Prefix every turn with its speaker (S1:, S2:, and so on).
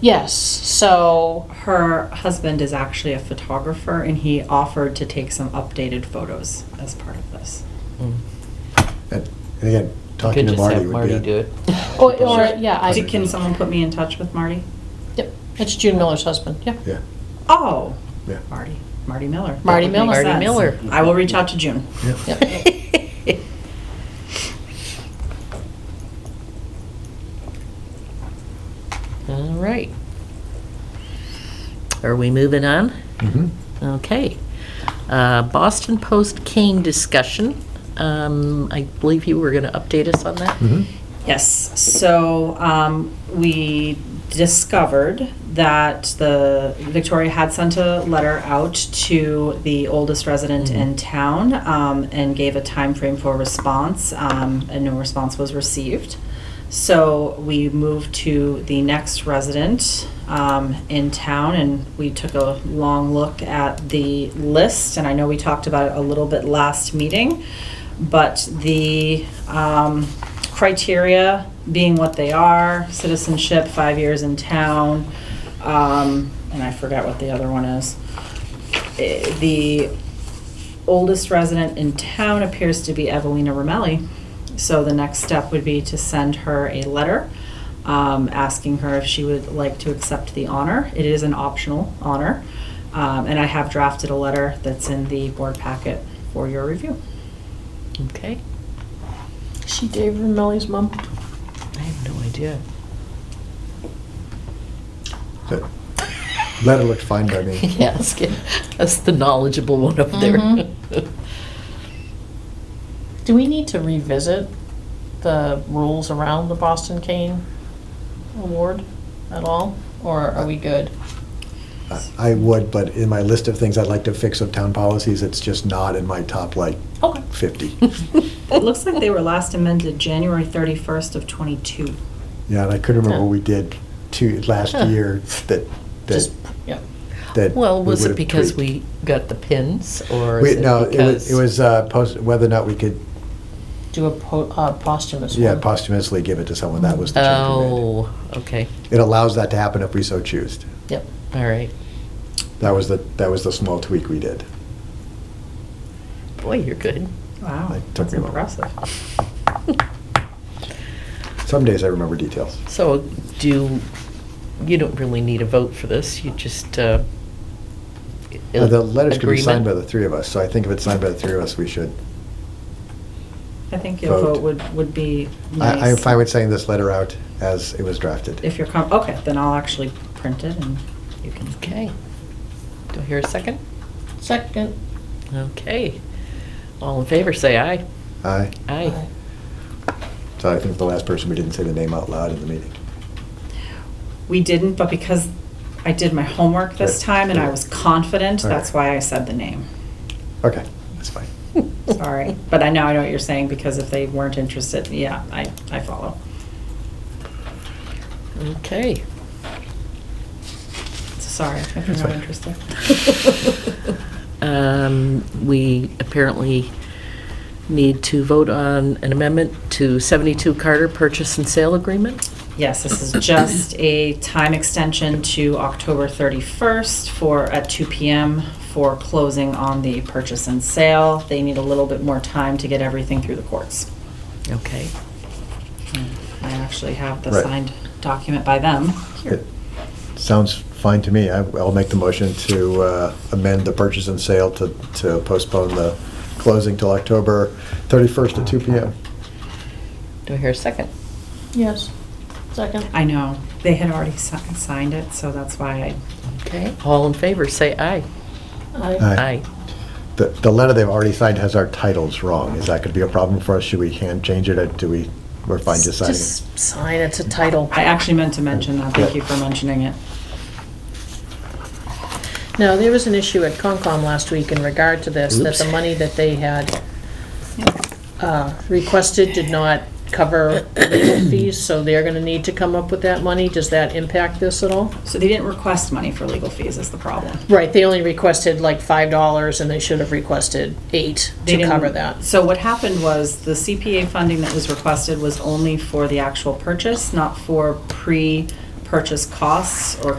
S1: Yes, so,
S2: Her husband is actually a photographer and he offered to take some updated photos as part of this.
S3: And and again,
S4: You
S3: talking to
S4: could just
S3: Marty
S4: have
S3: would be.
S4: Marty
S3: it.
S4: do it.
S1: or, or, yeah,
S2: Do-
S1: I,
S2: Can someone put me in touch with Marty?
S1: yep, it's June Miller's husband, yeah.
S3: Yeah,
S2: Oh,
S3: yeah.
S2: Marty, Marty Miller. That
S1: Marty
S2: would make
S1: Miller.
S5: Marty
S2: sense.
S5: Miller.
S2: I will reach out to June.
S3: Yeah.
S5: All right. Are we moving on?
S3: Mhm.
S5: Mm-hmm, Okay. Uh, Boston Post Kane discussion. Um, I believe you were going to update us on that?
S3: Mhm.
S2: Yes, so um, we discovered that the, Victoria had sent a letter out to the oldest resident in town um, and gave a time frame for response, um, and no response was received. So we moved to the next resident um, in town, and we took a long look at the list, and I know we talked about it a little bit last meeting, but the um, criteria being what they are, citizenship, five years in town, um, and I forgot what the other one is. Eh, The oldest resident in town appears to be Evelina Romelli. So the next step would be to send her a letter um, asking her if she would like to accept the honor. It is an optional honor. Um, and I have drafted a letter that's in the board packet for your review.
S3: Hmm.
S5: Okay.
S1: She Dave Millie's mom?
S5: I have no idea.
S3: That Letter looked fine by me.
S5: Yeah, that's good. That's the knowledgeable one up there.
S1: Mhm. Do we need to revisit the rules around the Boston Kane Award at all, or are we good?
S3: I- I would, but in my list of things I'd like to fix of town policies, it's just not in my top like
S1: Okay.
S3: 50.
S2: It looks like they were last amended January 31st of 22.
S3: Yeah, and I couldn't remember
S1: Huh.
S3: what we did two, last
S5: Huh.
S3: year that, that,
S1: Just, yeah.
S3: that.
S5: Well,
S3: we
S5: was it
S3: would've
S5: because
S3: tweaked.
S5: we got the pins or
S3: We-
S5: is it
S3: No, it was,
S5: because?
S3: it was uh, post, whether or not we could,
S1: Do a po- uh, posthumous one.
S3: yeah, posthumously give it to someone, that was the change we made.
S5: Oh, okay.
S3: It allows that to happen if we so choose.
S5: Yep, all right.
S3: That was the, that was the small tweak we did.
S5: Boy, you're good.
S2: Wow,
S3: It took
S2: that's
S3: me a moment.
S2: impressive.
S3: Some days I remember details.
S5: So do, you don't really need a vote for this, you just, uh.
S3: Uh, The letters could be signed by the
S5: agreement?
S3: three of us, so I think if it's signed by the three of us, we should.
S2: I think your
S3: Vote.
S2: vote would, would be nice.
S3: I, I'm fine with saying this letter out as it was drafted.
S2: If you're, com- okay, then I'll actually print it and you can
S5: Okay. Do I hear a second?
S1: Second.
S5: Okay. All in favor, say aye.
S3: Aye.
S5: Aye.
S3: So I think the last person, we didn't say the name out loud in the meeting.
S2: We didn't, but because I did my homework this
S3: Right.
S2: time and I was confident,
S3: All right.
S2: that's why I said the name.
S3: Okay, that's fine.
S2: Sorry, but I know, I know what you're saying, because if they weren't interested, yeah, I, I follow.
S5: Okay.
S2: Sorry, if you're
S3: That's
S2: not
S3: fine.
S2: interested.
S5: Um, We apparently need to vote on an amendment to 72 Carter Purchase and Sale Agreement.
S2: Yes, this is just a time extension to October 31st for, at 2 PM for closing on the purchase and sale. They need a little bit more time to get everything through the courts.
S5: Okay.
S2: I actually have the
S3: Right.
S2: signed document by them.
S3: It Sounds fine to me. I- I'll make the motion to uh, amend the purchase and sale to, to postpone the closing till October 31st at 2 PM.
S5: Do I hear a second?
S1: Yes. Second.
S2: I know, they had already si- signed it, so that's why I
S5: Okay. All in favor, say aye.
S1: Aye.
S3: Aye. The, the letter they've already signed has our titles wrong. Is that going to be a problem for us? Should we hand change it or do we, we're fine just signing? it?
S5: Just sign, it's a title.
S2: I actually meant to mention that, thank you for mentioning it.
S6: No, there was an issue at Concom last week in regard to this, that the
S3: Oops.
S6: money that they had uh, requested did not cover legal fees, so they're gonna need to come up with that money. Does that impact this at all?
S2: So they didn't request money for legal fees is the problem.
S6: Right, they only requested like five dollars, and they should have requested eight
S2: They
S6: to
S2: didn't-
S6: cover that.
S2: So what happened was the CPA funding that was requested was only for the actual purchase, not for pre-purchase purchase costs or